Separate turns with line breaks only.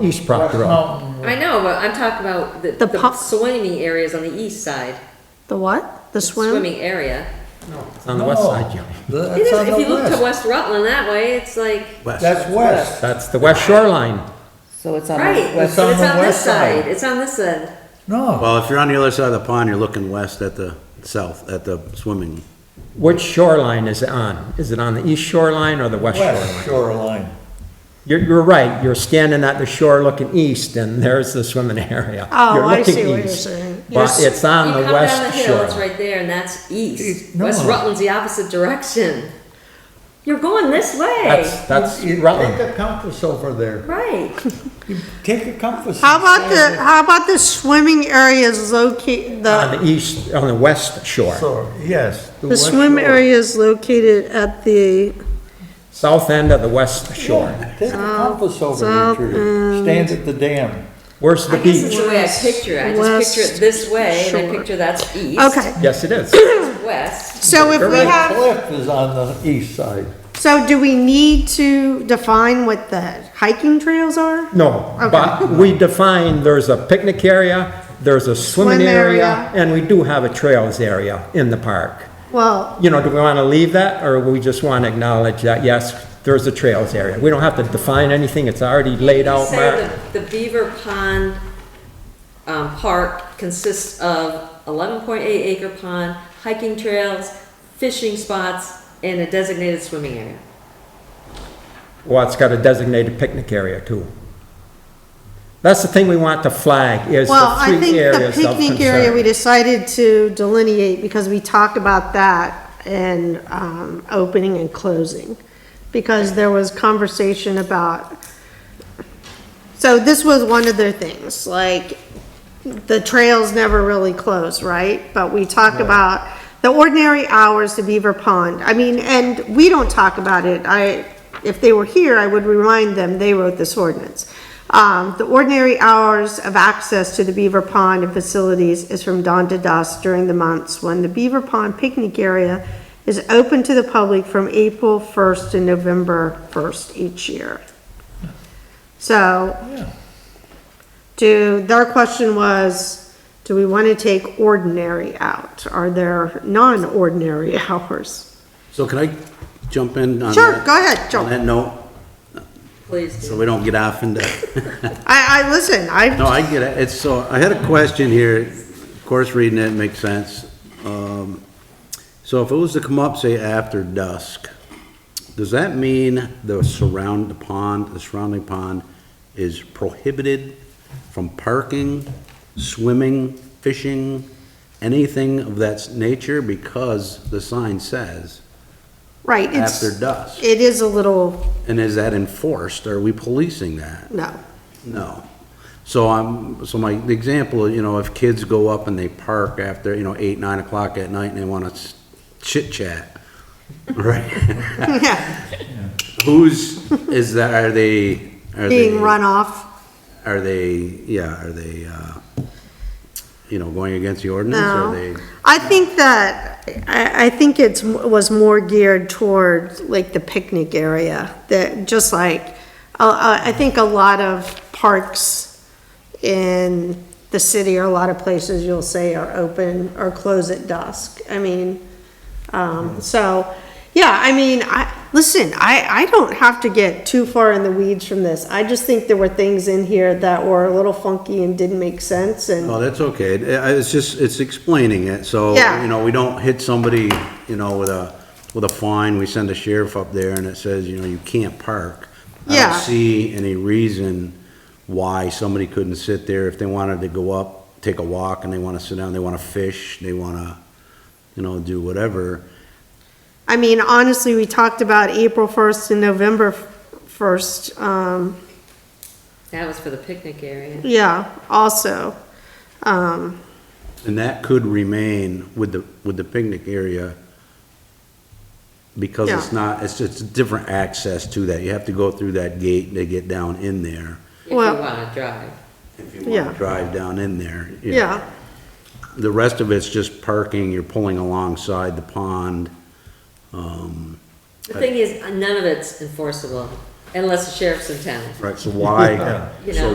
East Proctor Road.
Mountain.
I know, but I'm talking about the,
The
the
pub-
swimming areas on the east side.
The what? The swim?
Swimming area.
It's on the west side, Joe.
It
That's
is,
on
if you
the
look to
west.
West Rutland that way, it's like,
West.
That's west.
That's the west shoreline.
So it's on
right,
the
but
west,
it's
on the
on this
west side.
side, it's on this end.
No,
Well, if you're on the other side of the pond, you're looking west at the south, at the swimming.
Which shoreline is it on? Is it on the east shoreline or the west shoreline?
west shoreline.
You're, you're right, you're standing at the shore looking east, and there's the swimming area.
Oh,
You're
I
looking
see what you're
east,
saying. You're
But
s-
it's
You
on
come
the
down the
west
hill, it's
shore.
right there, and that's east.
East, no.
West Rutland's the opposite direction. You're going this way,
That's, that's
You- you
Rutland.
Take a compass over there.
right.
Take a compass.
How about the, how about the swimming areas located,
On
the,
the east, on the west shore.
So, yes.
the
west
swim
shore.
area is located at the,
South end of the west shore.
Take a
Oh,
compass over there,
south
Trudy.
um,
Stand at the dam.
Where's the
I guess it's
beach?
the way I picture it. I just picture it this way, and I
West
picture that's east.
okay.
Yes, it is.
West.
So if we
Correct.
have,
Cliff is on the east side.
so do we need to define what the hiking trails are?
No, but we define, there's a picnic area, there's a swimming
Swim
area,
area.
and we do have a trails area in the park.
Well,
You know, do we want to leave that, or we just want to acknowledge that, yes, there's a trails area? We don't have to define anything, it's already laid out,
Say
marked.
the, the Beaver Pond, um, park consists of eleven point eight acre pond, hiking trails, fishing spots, and a designated swimming area.
Well, it's got a designated picnic area too. That's the thing we want to flag, is
well,
the
I think
three
the
areas of
picnic area, we
concern.
decided to delineate because we talked about that and, um, opening and closing. Because there was conversation about, so this was one of their things, like, the trails never really close, right? But we talk about the ordinary hours to Beaver Pond. I mean, and we don't talk about it. I, if they were here, I would remind them, they wrote this ordinance. Um, the ordinary hours of access to the Beaver Pond and facilities is from dawn to dusk during the months when the Beaver Pond picnic area is open to the public from April first to November first each year. So, do, their question was, do we want to take ordinary out? Are there non-ordinary hours?
So can I jump in on that?
Sure, go ahead,
On
jump.
that note,
Please
so
do.
we don't get off into,
I, I, listen,
no,
I,
I get it. It's so, I had a question here. Of course, reading it makes sense. Um, So if it was to come up, say, after dusk, does that mean the surround, the pond, the surrounding pond is prohibited from parking, swimming, fishing, anything of that nature? Because the sign says
right, it's,
after dusk.
it is a little,
And is that enforced? Are we policing that?
no.
No. So I'm, so my, the example, you know, if kids go up and they park after, you know, eight, nine o'clock at night and they wanna chit chat, right?
Yeah,
Who's, is that, are they, are they?
Being run off,
Are they, yeah, are they, uh, you know, going against the ordinance?
no.
Are they?
I think that, I, I think it's, was more geared toward like the picnic area, that, just like, uh, I think a lot of parks in the city or a lot of places you'll say are open or close at dusk. I mean,
Hmm.
um, so, yeah, I mean, I, listen, I, I don't have to get too far in the weeds from this. I just think there were things in here that were a little funky and didn't make sense and,
Oh, that's okay. It- I- It's just, it's explaining it, so,
Yeah.
you know, we don't hit somebody, you know, with a, with a fine, we send a sheriff up there and it says, you know, you can't park. I
Yeah.
don't see any reason why somebody couldn't sit there if they wanted to go up, take a walk, and they wanna sit down, they wanna fish, they wanna, you know, do whatever.
I mean, honestly, we talked about April first and November first, um,
That was for the picnic area.
yeah, also. Um,
And that could remain with the, with the picnic area because it's
Yeah.
not, it's just a different access to that. You have to go through that gate to get down in there.
If you
Well-
wanna drive.
If you want
Yeah.
to drive down in there. you know.
yeah,
The rest of it's just parking, you're pulling alongside the pond. Um,
The thing is, none of it's enforceable unless the sheriff's in town.
Right, so why,
You
so
know.